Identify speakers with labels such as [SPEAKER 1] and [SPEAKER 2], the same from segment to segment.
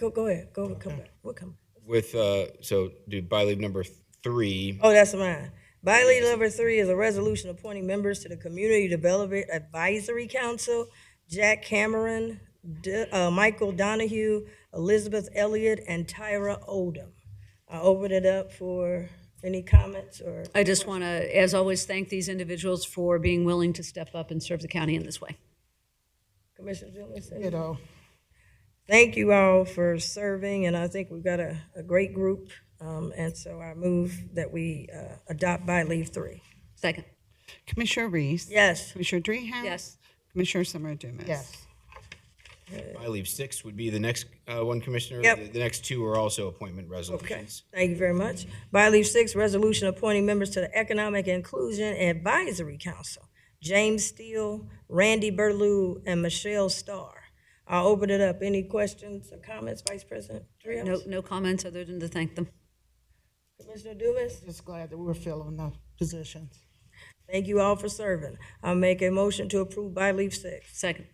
[SPEAKER 1] Go, go ahead, go, come back, we'll come.
[SPEAKER 2] With, uh, so do by leave number three,
[SPEAKER 1] Oh, that's mine. By leave number three is a resolution appointing members to the Community Development Advisory Council. Jack Cameron, D- uh, Michael Donahue, Elizabeth Elliott, and Tyra Odom. I open it up for any comments or,
[SPEAKER 3] I just want to, as always, thank these individuals for being willing to step up and serve the county in this way.
[SPEAKER 1] Commissioner Jones?
[SPEAKER 4] You know,
[SPEAKER 1] Thank you all for serving, and I think we've got a, a great group. Um, and so I move that we, uh, adopt by leave three.
[SPEAKER 3] Second.
[SPEAKER 5] Commissioner Reese.
[SPEAKER 1] Yes,
[SPEAKER 5] Commissioner Dreehouse.
[SPEAKER 3] Yes.
[SPEAKER 5] Commissioner Summer Dumas.
[SPEAKER 4] yes,
[SPEAKER 2] by leave six would be the next, uh, one commissioner.
[SPEAKER 1] Yep.
[SPEAKER 2] The- The next two are also appointment resolutions.
[SPEAKER 1] thank you very much. By leave six, resolution appointing members to the Economic Inclusion Advisory Council. James Steele, Randy Burlew, and Michelle Starr. I'll open it up. Any questions or comments, Vice President
[SPEAKER 3] No,
[SPEAKER 1] Trios?
[SPEAKER 3] no comments other than to thank them.
[SPEAKER 1] Commissioner Dumas?
[SPEAKER 4] just glad that we're filling the positions.
[SPEAKER 1] Thank you all for serving. I'll make a motion to approve by leave six.
[SPEAKER 3] Second.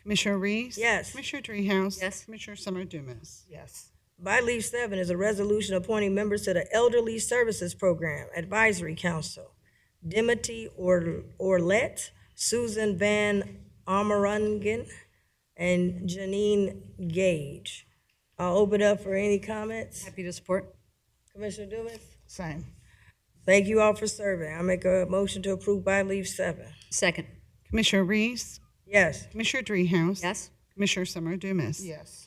[SPEAKER 5] Commissioner Reese.
[SPEAKER 1] Yes.
[SPEAKER 5] Commissioner Dreehouse.
[SPEAKER 3] Yes.
[SPEAKER 5] Commissioner Summer Dumas.
[SPEAKER 4] Yes,
[SPEAKER 1] By leave seven is a resolution appointing members to the Elderly Services Program Advisory Council. Dimity Or- Orlett, Susan Van Omerangen, and Janine Gage. I'll open up for any comments.
[SPEAKER 3] Happy to support.
[SPEAKER 1] Commissioner Dumas?
[SPEAKER 4] same.
[SPEAKER 1] Thank you all for serving. I make a motion to approve by leave seven.
[SPEAKER 3] Second.
[SPEAKER 5] Commissioner Reese.
[SPEAKER 1] Yes.
[SPEAKER 5] Commissioner Dreehouse.
[SPEAKER 3] Yes.
[SPEAKER 5] Commissioner Summer Dumas.
[SPEAKER 4] Yes,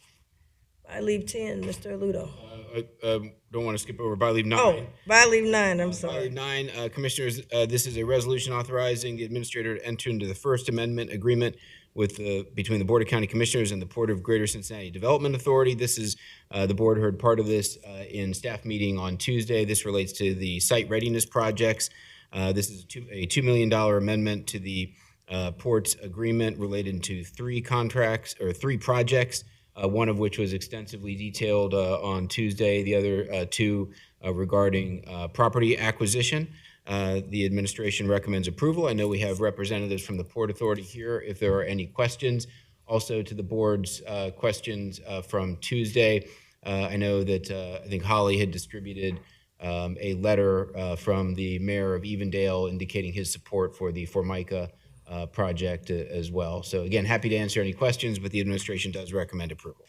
[SPEAKER 1] By leave ten, Mr. Ludo.
[SPEAKER 2] Uh, uh, um, don't want to skip over by leave
[SPEAKER 1] Oh,
[SPEAKER 2] nine.
[SPEAKER 1] by leave nine, I'm
[SPEAKER 2] By leave
[SPEAKER 1] sorry.
[SPEAKER 2] nine, uh, commissioners, uh, this is a resolution authorizing the administrator to enter into the First Amendment Agreement with the, between the Board of County Commissioners and the Port of Greater Cincinnati Development Authority. This is, uh, the board heard part of this, uh, in staff meeting on Tuesday. This relates to the site readiness projects. Uh, this is a two, a two million dollar amendment to the, uh, ports agreement related to three contracts or three projects uh, one of which was extensively detailed uh, on Tuesday, the other uh, two uh, regarding uh, property acquisition. Uh, The administration recommends approval. I know we have representatives from the Port Authority here if there are any questions. Also to the board's uh, questions uh, from Tuesday, uh, I know that, uh, I think Holly had distributed um, a letter uh, from the mayor of Evendale indicating his support for the Formica uh, project uh, as well. So again, happy to answer any questions, but the administration does recommend approval.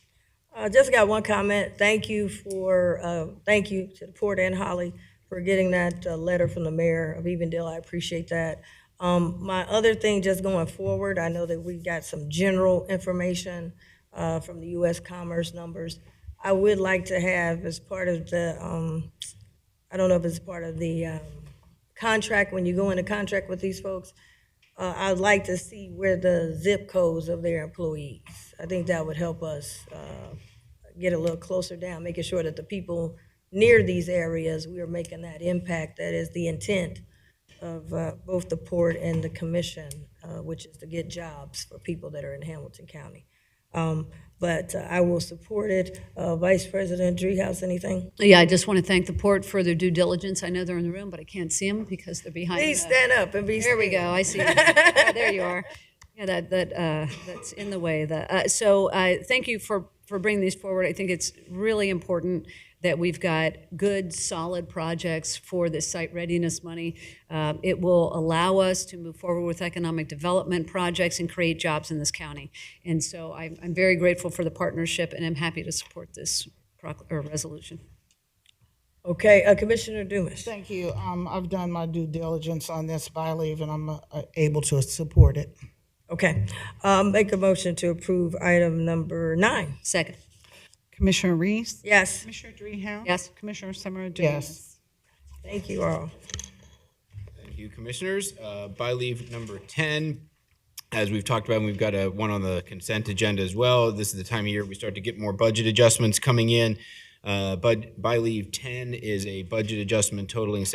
[SPEAKER 1] I just got one comment. Thank you for, uh, thank you to the Port and Holly for getting that uh, letter from the mayor of Evendale. I appreciate that. Um, My other thing, just going forward, I know that we got some general information uh, from the U.S. Commerce numbers. I would like to have, as part of the, um, I don't know if it's part of the um, contract, when you go into contract with these folks, uh, I'd like to see where the zip codes of their employees. I think that would help us uh, get a little closer down, making sure that the people near these areas, we are making that impact. That is the intent of uh, both the port and the commission, uh, which is to get jobs for people that are in Hamilton County. Um, But uh, I will support it. Uh, Vice President Dreehouse, anything?
[SPEAKER 3] Yeah, I just want to thank the port for their due diligence. I know they're in the room, but I can't see them because they're behind.
[SPEAKER 1] Please
[SPEAKER 3] uh,
[SPEAKER 1] stand up and be.
[SPEAKER 3] There we go. I see. you. Yeah, there you are. Yeah, that that uh, that's in the way. That uh, so. Uh, thank you for for bringing these forward. I think it's really important that we've got good, solid projects for this site readiness money. Um, it will allow us to move forward with economic development projects and create jobs in this county. And so I'm, I'm very grateful for the partnership, and I'm happy to support this proc- or resolution.
[SPEAKER 1] Okay, uh, Commissioner Dumas.
[SPEAKER 4] thank you. Um, I've done my due diligence on this by leave and I'm uh, able to support it.
[SPEAKER 1] Okay, um, make a motion to approve item number nine.
[SPEAKER 3] Second.
[SPEAKER 5] Commissioner Reese.
[SPEAKER 1] Yes,
[SPEAKER 5] Commissioner Dreehouse.
[SPEAKER 3] Yes.
[SPEAKER 5] Commissioner Summer Dumas.
[SPEAKER 4] Yes,
[SPEAKER 1] thank you all.
[SPEAKER 2] Thank you, Commissioners. Uh, By leave number 10, as we've talked about, we've got a, one on the consent agenda as well. This is the time of year we start to get more budget adjustments coming in. Uh, But by leave 10 is a budget adjustment totaling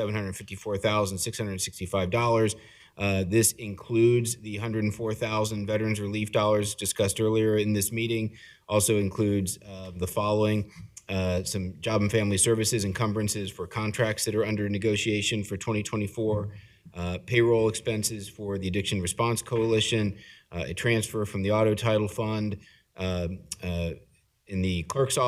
[SPEAKER 2] $754,665. Uh, This includes the 104,000 veterans relief dollars discussed earlier in this meeting. Also includes uh, the following, uh, some job and family services encumbrances for contracts that are under negotiation for 2024, uh, payroll expenses for the Addiction Response Coalition, uh, a transfer from the Auto Title Fund, um, uh, in the clerk's office.